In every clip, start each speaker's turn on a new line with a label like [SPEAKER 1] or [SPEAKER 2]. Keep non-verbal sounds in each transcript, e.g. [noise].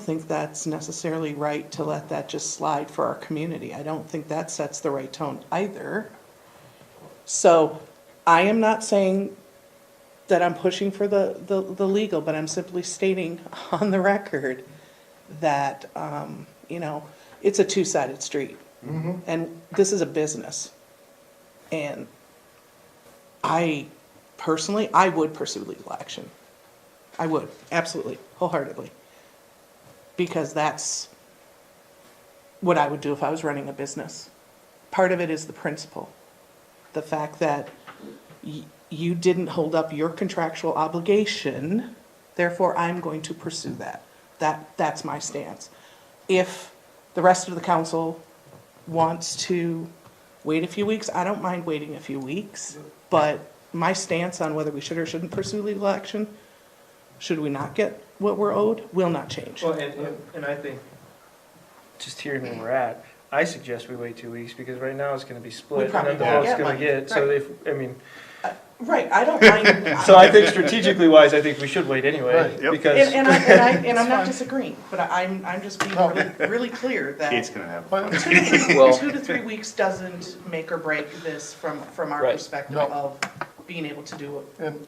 [SPEAKER 1] think that's necessarily right to let that just slide for our community. I don't think that sets the right tone either. So I am not saying that I'm pushing for the, the, the legal, but I'm simply stating [laughs] on the record that, um, you know, it's a two-sided street. And this is a business. And I personally, I would pursue legal action. I would, absolutely, wholeheartedly. Because that's what I would do if I was running a business. Part of it is the principle. The fact that y- you didn't hold up your contractual obligation, therefore I'm going to pursue that. That, that's my stance. If the rest of the council wants to wait a few weeks, I don't mind waiting a few weeks, but my stance on whether we should or shouldn't pursue legal action, should we not get what we're owed, will not change.
[SPEAKER 2] Well, and, and- and I think, just hearing where we're at, I suggest we wait two weeks, because right now it's gonna be split, and
[SPEAKER 1] probably
[SPEAKER 2] then the
[SPEAKER 1] won't
[SPEAKER 2] vote's
[SPEAKER 1] get
[SPEAKER 2] gonna
[SPEAKER 1] money,
[SPEAKER 2] get, so
[SPEAKER 1] right.
[SPEAKER 2] if, I mean,
[SPEAKER 1] Right, I don't
[SPEAKER 3] [laughs]
[SPEAKER 1] mind.
[SPEAKER 2] so I think strategically wise, I think we should wait anyway,
[SPEAKER 3] Right, yep.
[SPEAKER 1] And,
[SPEAKER 2] because,
[SPEAKER 1] and I, and I, and I'm not disagreeing, but I- I'm, I'm just being really, really clear that
[SPEAKER 3] Kate's gonna have.
[SPEAKER 1] two
[SPEAKER 3] fun. [laughs]
[SPEAKER 1] to three-
[SPEAKER 4] Well-
[SPEAKER 1] two to three weeks doesn't make or break this from, from our
[SPEAKER 4] Right.
[SPEAKER 1] perspective
[SPEAKER 3] No.
[SPEAKER 1] of being able to do it.
[SPEAKER 3] And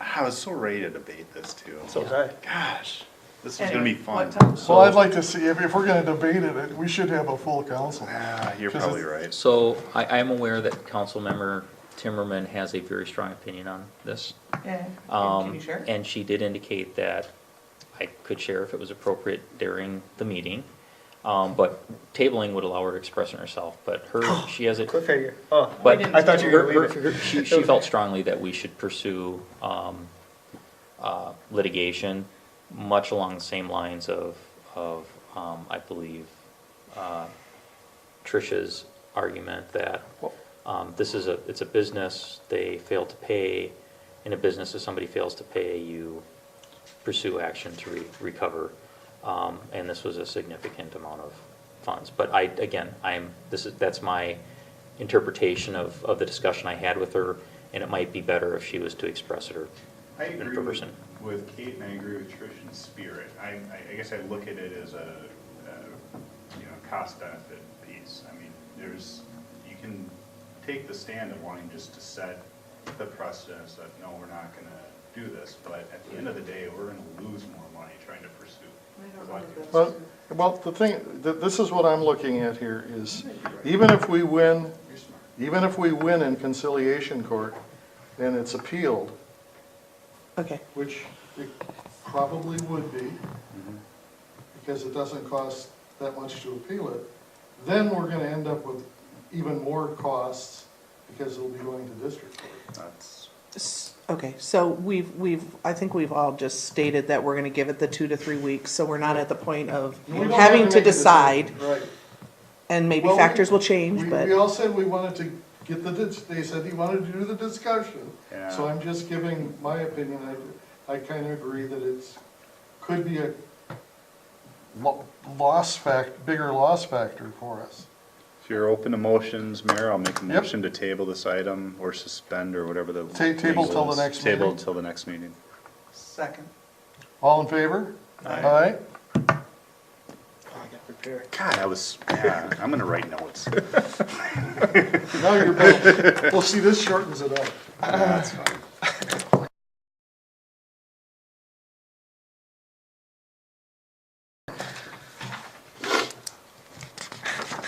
[SPEAKER 3] I was so ready to debate this too.
[SPEAKER 2] so was I.
[SPEAKER 3] Gosh, this is gonna be
[SPEAKER 1] Anyway, what
[SPEAKER 3] fun.
[SPEAKER 1] time?
[SPEAKER 5] Well, I'd like to see, if, if we're gonna debate it, it, we should have a full council.
[SPEAKER 3] Ah, you're
[SPEAKER 5] Because
[SPEAKER 3] probably
[SPEAKER 5] it's-
[SPEAKER 3] right.
[SPEAKER 4] So I, I am aware that Councilmember Timmerman has a very strong opinion on this.
[SPEAKER 1] Yeah.
[SPEAKER 4] Um,
[SPEAKER 1] Can you share?
[SPEAKER 4] And she did indicate that I could share if it was appropriate during the meeting. Um, but tabling would allow her to express herself, but
[SPEAKER 1] [gasps]
[SPEAKER 4] her, she has a,
[SPEAKER 2] Cliffhanger, oh,
[SPEAKER 4] But-
[SPEAKER 2] I thought you were
[SPEAKER 4] her,
[SPEAKER 2] gonna leave it.
[SPEAKER 4] her, her- she, she felt strongly that we should pursue, um, uh, litigation, much along the same lines of, of, um, I believe, uh, Tricia's argument that, um, this is a, it's a business, they fail to pay. In a business, if somebody fails to pay, you pursue action to re- recover. Um, and this was a significant amount of funds. But I, again, I'm, this is, that's my interpretation of, of the discussion I had with her. And it might be better if she was to express it or.
[SPEAKER 3] I
[SPEAKER 4] in
[SPEAKER 3] agree with,
[SPEAKER 4] person.
[SPEAKER 3] with Kate and I agree with Trish in spirit. I, I- I guess I look at it as a, uh, you know, cost benefit piece. I mean, there's, you can take the stand of wanting just to set the precedence that, no, we're not gonna do this, but at the end of the day, we're gonna lose more money trying to pursue.
[SPEAKER 5] Well, well, the thing, th- this is what I'm looking at here is, even if we win,
[SPEAKER 3] You're smart.
[SPEAKER 5] even if we win in conciliation court and it's appealed,
[SPEAKER 1] Okay,
[SPEAKER 5] which it probably would be,
[SPEAKER 3] Mm-hmm.
[SPEAKER 5] because it doesn't cost that much to appeal it, then we're gonna end up with even more costs because it'll be going to district court.
[SPEAKER 3] That's,
[SPEAKER 1] S- okay, so we've, we've, I think we've all just stated that we're gonna give it the two to three weeks, so we're not at the point of
[SPEAKER 5] We don't have
[SPEAKER 1] having to
[SPEAKER 5] make a decision.
[SPEAKER 1] decide,
[SPEAKER 5] Right.
[SPEAKER 1] and maybe
[SPEAKER 5] Well, we-
[SPEAKER 1] factors will change,
[SPEAKER 5] We,
[SPEAKER 1] but.
[SPEAKER 5] we all said we wanted to get the, dis- they said he wanted to do the discussion. So
[SPEAKER 3] Yeah.
[SPEAKER 5] I'm just giving my opinion, I, I kind of agree that it's, could be a lo- loss fact, bigger loss factor for us.
[SPEAKER 3] if you're open to motions, Mayor, I'll make a
[SPEAKER 5] Yep.
[SPEAKER 3] motion to table this item or suspend or whatever the.
[SPEAKER 5] Ta- table till the
[SPEAKER 3] legal is.
[SPEAKER 5] next
[SPEAKER 3] Table
[SPEAKER 5] meeting.
[SPEAKER 3] till the next meeting.
[SPEAKER 1] Second.
[SPEAKER 5] All in favor?
[SPEAKER 3] Aye.
[SPEAKER 5] Aye?
[SPEAKER 2] I got prepared.
[SPEAKER 3] God, I was, yeah, I'm gonna write
[SPEAKER 5] [laughs]
[SPEAKER 3] notes.
[SPEAKER 5] Now you're back. Well, see, this shortens it up.
[SPEAKER 3] That's fine.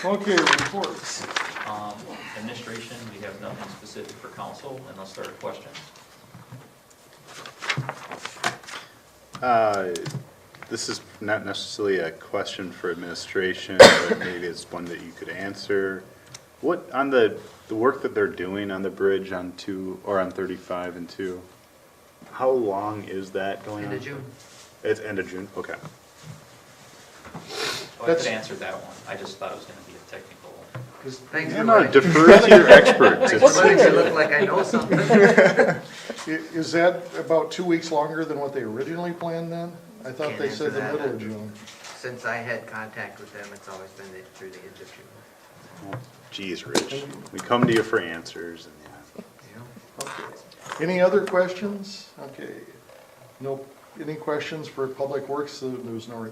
[SPEAKER 5] Okay, reports.
[SPEAKER 4] Um, administration, we have nothing specific for council unless there are questions.
[SPEAKER 3] Uh, This is not necessarily a question for administration, but maybe it's one that you could answer. What, on the, the work that they're doing on the bridge on two, or on thirty-five and two, how long is that going on?
[SPEAKER 4] End of June.
[SPEAKER 3] It's end of June, okay.
[SPEAKER 4] Oh, I
[SPEAKER 5] That's-
[SPEAKER 4] could answer that one. I just thought it was gonna be a technical.
[SPEAKER 6] Thanks
[SPEAKER 3] No,
[SPEAKER 6] for
[SPEAKER 3] no,
[SPEAKER 6] letting
[SPEAKER 3] defer
[SPEAKER 5] [laughs]
[SPEAKER 3] to your experts.
[SPEAKER 1] What's
[SPEAKER 3] It's-
[SPEAKER 6] letting me look like I know something.
[SPEAKER 5] I- Is that about two weeks longer than what they originally planned then? I thought
[SPEAKER 6] Can't
[SPEAKER 5] they said
[SPEAKER 6] answer
[SPEAKER 5] the
[SPEAKER 6] that.
[SPEAKER 5] middle of June.
[SPEAKER 6] Since I had contact with them, it's always been through the end of June.
[SPEAKER 3] Geez, Rich, we come to you for answers and, yeah.
[SPEAKER 6] you know?
[SPEAKER 5] Okay. Any other questions? Okay. No, any questions for Public Works? There was no